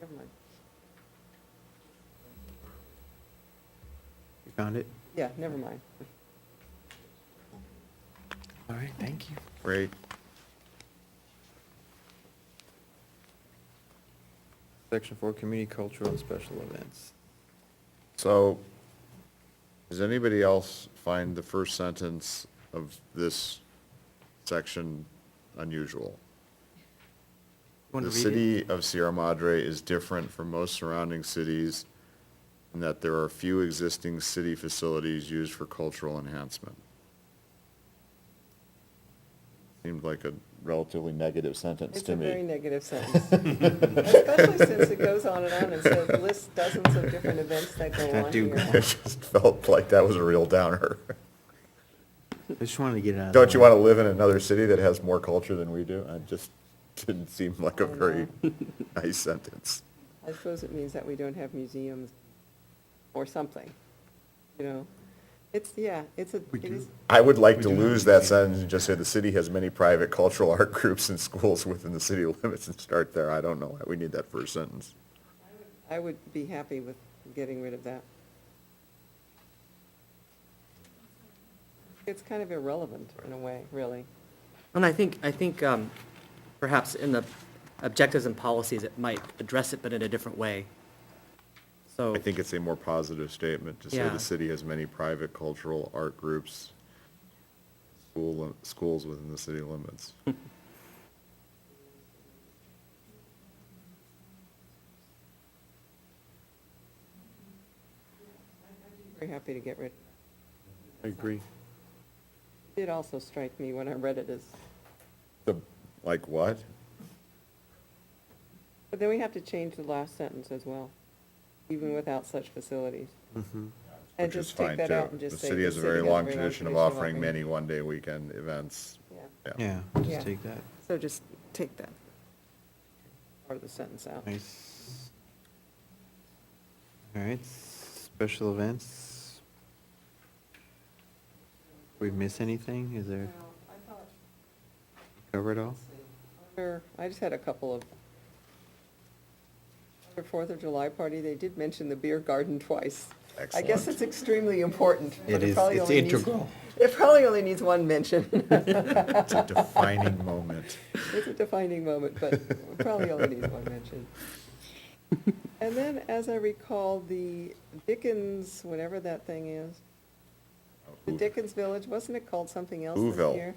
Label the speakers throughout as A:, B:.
A: Never mind.
B: You found it?
A: Yeah, never mind.
B: All right, thank you. Great. Section four, community cultural and special events.
C: So, does anybody else find the first sentence of this section unusual?
B: Want
C: The
B: to read it?
C: city of Sierra Madre is different from most surrounding cities in that there are few existing city facilities used for cultural enhancement. Seemed like a relatively negative sentence
A: It's
C: to
A: a
C: me.
A: very negative sentence. Especially since it goes on and on and says, lists dozens of different events that go
B: That
A: on
B: do
A: here.
B: go on.
C: It just felt like that was a real downer.
B: I just wanted to get it out. of the
C: Don't you
B: way.
C: want to live in another city that has more culture than we do? It just didn't seem like a
A: I know.
C: very nice sentence.
A: I suppose it means that we don't have museums or something, you know? It's, yeah, it's a,
D: We
A: it
D: do.
A: is,
C: I would like
D: We
C: to
D: do have
C: lose that
D: museums.
C: sentence and just say the city has many private cultural art groups and schools within the city limits and start there. I don't know why we need that first sentence.
A: I would be happy with getting rid of that. It's kind of irrelevant in a way, really.
E: And I think, I think um, perhaps in the objectives and policies, it might address it, but in a different way. So,
C: I think it's a more positive statement to say
E: Yeah.
C: the city has many private cultural art groups, school, lim- schools within the city limits.
A: Very happy to get rid.
D: I agree.
A: It also strike me when I read it as,
C: The, like what?
A: but then we have to change the last sentence as well, even without such facilities.
B: Mhm.
A: And
C: Which is
A: just take
C: fine,
A: that
C: too.
A: out and just say.
C: The city has a very
A: has
C: long
A: very
C: tradition of
A: tradition
C: offering many one-day weekend events.
A: Yeah,
B: Yeah,
A: Yeah.
B: just take that.
A: so just take that part of the sentence out.
B: Nice. All right, special events. We miss anything? Is there, cover it all?
A: Or, I just had a couple of, their Fourth of July party, they did mention the beer garden twice. I guess
C: Excellent.
A: it's extremely important, but
B: It
A: it
B: is,
A: probably
B: it's
A: only needs.
B: integral.
A: It probably only needs one mention.
C: It's a defining moment.
A: It's a defining moment, but probably only needs one mention. And then, as I recall, the Dickens, whatever that thing is, the Dickens Village, wasn't it called something else this
C: Whoville.
A: year?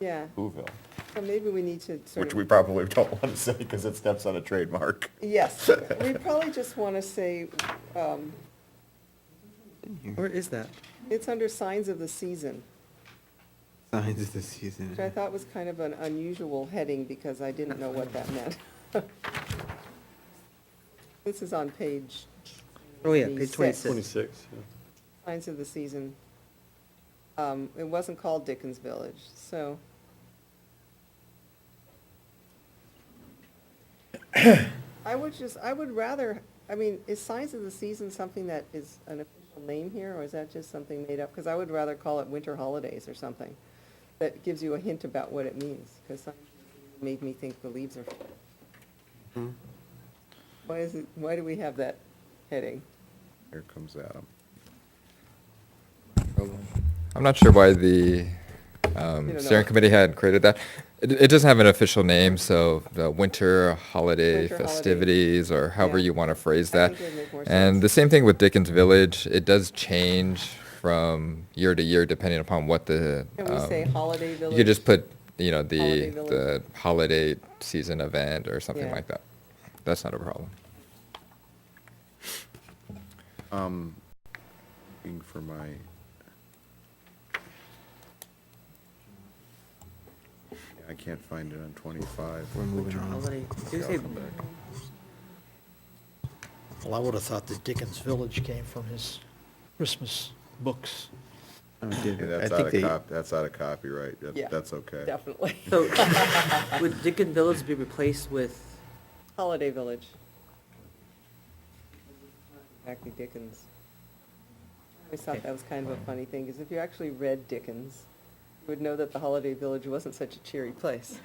A: Yeah,
C: Whoville,
A: so maybe we need to sort
C: which
A: of.
C: we probably don't want to say because it steps on a trademark.
A: Yes, we probably just want to say, um,
E: where is that?
A: it's under signs of the season,
B: Signs of the season.
C: Mhm.
A: which I thought was kind of an unusual heading because I didn't know what that meant. This is on page,
E: Oh, yeah, page
A: 26.
D: 26,
E: twenty-six.
D: yeah.
A: signs of the season. Um, It wasn't called Dickens Village, so. I would just, I would rather, I mean, is signs of the season something that is an official name here, or is that just something made up? Because I would rather call it winter holidays or something. That gives you a hint about what it means, because made me think the leaves are.
E: Hmm.
B: Mhm.
A: Why is it, why do we have that heading?
C: Here comes Adam.
F: I'm not sure why the
A: You don't
F: um,
A: know.
F: steering committee had created that. It, it doesn't have an official name, so the winter holiday
A: Winter holiday.
F: festivities, or however
A: Yeah.
F: you want to phrase
A: I
F: that.
A: think it would make more sense.
F: And the same thing with Dickens Village. It does change from year to year depending upon what the.
A: Can we say
F: um,
A: holiday village?
F: you could just put, you know, the
A: Holiday Village?
F: the holiday season event or something
A: Yeah.
F: like that. That's not a problem.
C: Um, looking for my, Yeah, I can't find it on 25.
B: We're moving on.
E: Holiday. Did you say-
G: Well, I would have thought that Dickens Village came from his Christmas books.
B: Oh, it did.
C: Yeah,
B: I
C: That's
B: think
C: out
B: they-
C: of cop, that's out of copyright. That-
A: Yeah,
C: That's okay.
A: Definitely.
E: So, would Dickens Village be replaced with,
A: Holiday village. Exactly Dickens. I always thought
E: Okay.
A: that was kind of a funny thing, because if you actually read Dickens, you would know that the holiday village wasn't such a cheery place.